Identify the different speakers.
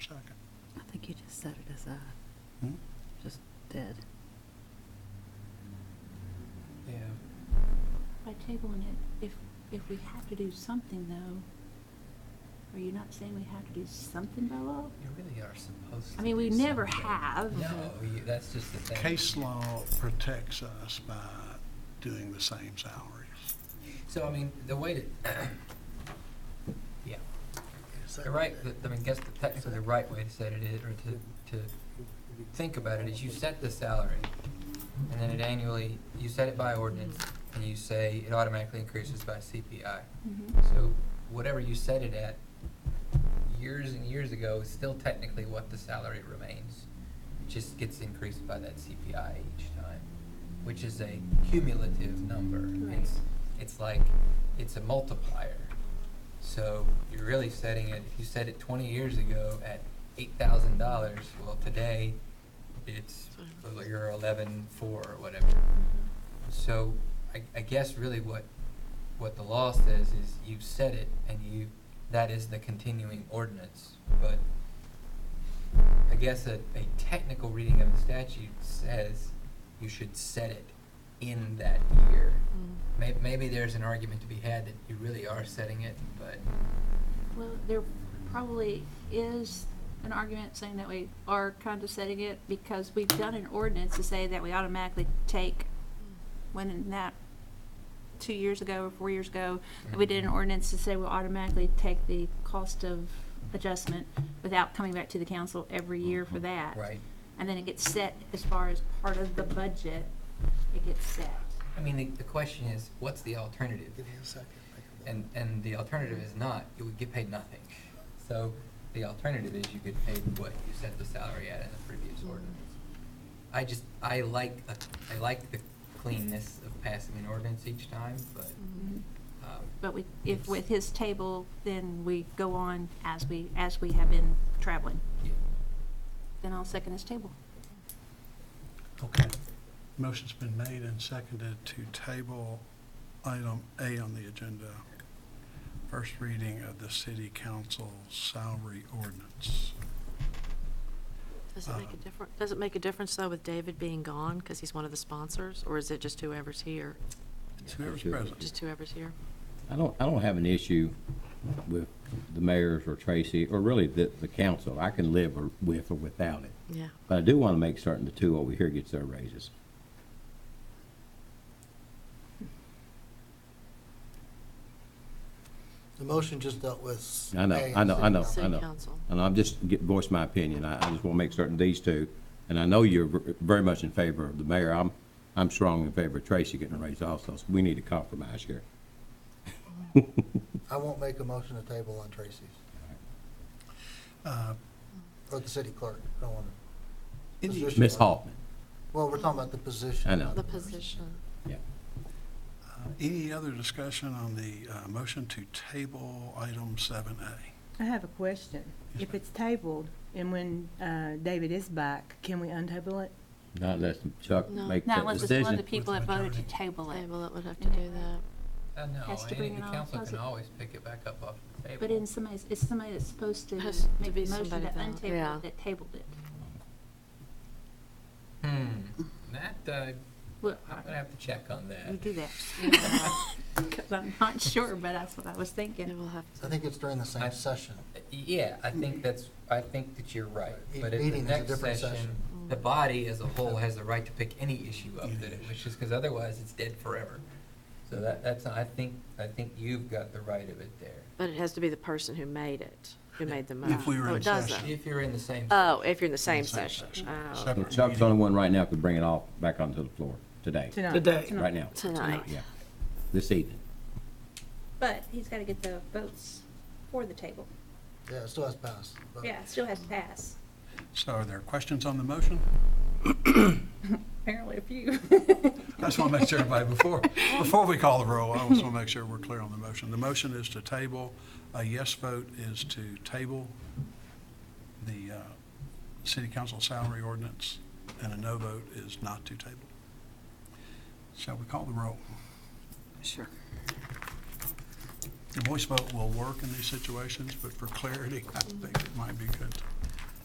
Speaker 1: second.
Speaker 2: I think you just set it aside.
Speaker 1: Hmm?
Speaker 2: Just dead.
Speaker 3: Yeah.
Speaker 4: By tabling it, if, if we have to do something though, are you not saying we have to do something by law?
Speaker 3: You really are supposed to.
Speaker 4: I mean, we
Speaker 3: do
Speaker 4: never
Speaker 3: something.
Speaker 4: have.
Speaker 3: No, you, that's just the thing.
Speaker 1: Case law protects us by doing the same salaries.
Speaker 3: So, I mean, the way to, yeah, the right, the- I mean, guess the technically the right way to set it is, or to, to think about it is you set the salary. And then it annually, you set it by ordinance and you say it automatically increases by CPI. So whatever you set it at years and years ago is still technically what the salary remains. It just gets increased by that CPI each time, which is a cumulative number.
Speaker 4: Right.
Speaker 3: It's, it's like, it's a multiplier. So you're really setting it, if you set it twenty years ago at eight thousand dollars, well, today it's, well, you're eleven four or whatever. So I, I guess really what, what the law says is you set it and you, that is the continuing ordinance. But I guess a, a technical reading of the statute says you should set it in that year.
Speaker 5: Mm.
Speaker 3: May, maybe there's an argument to be had that you really are setting it, but
Speaker 4: Well, there probably is an argument saying that we are kind of setting it because we've done an ordinance to say that we automatically take when in that two years ago or four years ago, we did an
Speaker 3: Mhm.
Speaker 4: ordinance to say we'll automatically take the cost of adjustment without coming back to the council every year for that.
Speaker 3: right.
Speaker 4: And then it gets set as far as part of the budget, it gets set.
Speaker 3: I mean, the, the question is, what's the alternative? And, and the alternative is not, you would get paid nothing. So the alternative is you get paid what you set the salary at in the previous ordinance. I just, I like, a- I like the cleanness of passing an ordinance each time, but, um.
Speaker 4: But we, if
Speaker 3: it's-
Speaker 4: with his table, then we go on as we, as we have been traveling.
Speaker 3: yeah.
Speaker 4: Then I'll second his table.
Speaker 1: Okay. Motion's been made and seconded to table item A on the agenda. First reading of the city council salary ordinance.
Speaker 6: Does it make a difference, does it make a difference though with David being gone, because he's one of the sponsors, or is it just whoever's here?
Speaker 1: It's Whoever's present.
Speaker 6: Just whoever's here?
Speaker 7: I don't, I don't have an issue with the mayors or Tracy, or really the, the council. I can live or- with or without it.
Speaker 6: Yeah.
Speaker 7: But I do want to make certain the two over here gets their raises.
Speaker 8: The motion just dealt with.
Speaker 7: I know,
Speaker 8: A.
Speaker 7: I know, Oh, I know, I
Speaker 6: City
Speaker 7: know.
Speaker 6: council.
Speaker 7: And I'm just get, voice my opinion. I, I just want to make certain these two, and I know you're ver- very much in favor of the mayor. I'm, I'm strong in favor of Tracy getting a raise also, so we need to compromise here.
Speaker 8: I won't make a motion to table on Tracy's,
Speaker 1: Uh,
Speaker 8: or the city clerk, I don't want
Speaker 1: Any-
Speaker 8: to.
Speaker 1: uh,
Speaker 8: Position.
Speaker 7: Ms. Hoffman,
Speaker 8: Well, we're talking about the position.
Speaker 7: I know.
Speaker 6: The position.
Speaker 7: yeah.
Speaker 1: uh, Any other discussion on the uh, motion to table item seven A?
Speaker 5: I have a question.
Speaker 1: Yes,
Speaker 5: If
Speaker 1: ma'am.
Speaker 5: it's tabled and when uh, David is back, can we untable it?
Speaker 7: Not unless Chuck
Speaker 6: No.
Speaker 7: makes
Speaker 4: Now,
Speaker 7: that
Speaker 4: unless it's one of the
Speaker 7: decision.
Speaker 4: people that voted to table
Speaker 6: Okay,
Speaker 4: it.
Speaker 6: well, it would have to do that.
Speaker 3: Uh, no,
Speaker 4: Has
Speaker 3: any-
Speaker 4: to bring it
Speaker 3: the
Speaker 4: on,
Speaker 3: council
Speaker 4: does
Speaker 3: can
Speaker 4: it?
Speaker 3: always pick it back up off the table.
Speaker 4: But in somebody's, it's somebody that's supposed to
Speaker 6: Has to
Speaker 4: make
Speaker 6: be
Speaker 4: the motion
Speaker 6: somebody
Speaker 4: that
Speaker 6: that-
Speaker 4: untabled
Speaker 6: yeah.
Speaker 4: it, that tabled it.
Speaker 3: Hmm, that, uh,
Speaker 4: Well,
Speaker 3: I'm gonna have to check on that.
Speaker 4: you do that. Because I'm not sure, but that's what I was
Speaker 6: It
Speaker 4: thinking.
Speaker 6: will have to.
Speaker 8: I think it's during the
Speaker 3: I-
Speaker 8: same session.
Speaker 3: Yeah, I think that's, I think that you're right,
Speaker 8: Each
Speaker 3: but at the
Speaker 8: meeting is a
Speaker 3: next
Speaker 8: different
Speaker 3: session,
Speaker 8: session.
Speaker 6: Mm.
Speaker 3: the body as a whole has the right to pick any issue up that it
Speaker 1: Yes.
Speaker 3: wishes, because otherwise it's dead forever. So that, that's, I think, I think you've got the right of it there,
Speaker 6: But it has to be the person who made it, who made the motion.
Speaker 1: If we were
Speaker 6: Oh,
Speaker 1: in
Speaker 6: it does
Speaker 1: session.
Speaker 3: if you're in the same.
Speaker 6: that. Oh, if you're in the same
Speaker 1: same
Speaker 6: session. Oh,
Speaker 1: Separate
Speaker 7: Chuck's the
Speaker 1: meeting.
Speaker 7: only one right now could bring it off, back onto the floor today,
Speaker 5: Today.
Speaker 7: right now.
Speaker 6: tonight.
Speaker 7: Yeah, this evening.
Speaker 4: But he's got to get the votes for the table.
Speaker 8: Yeah, it still has passed. but-
Speaker 4: Yeah, it still has to pass.
Speaker 1: So are there questions on the motion?
Speaker 4: Apparently a few.
Speaker 1: I just want to make sure everybody, before, before we call the roll, I just want to make sure we're clear on the motion. The motion is to table, a yes vote is to table the uh, city council salary ordinance, and a no vote is not to table. Shall we call the roll?
Speaker 2: Sure.
Speaker 1: The voice vote will work in these situations, but for clarity, I think it might be good.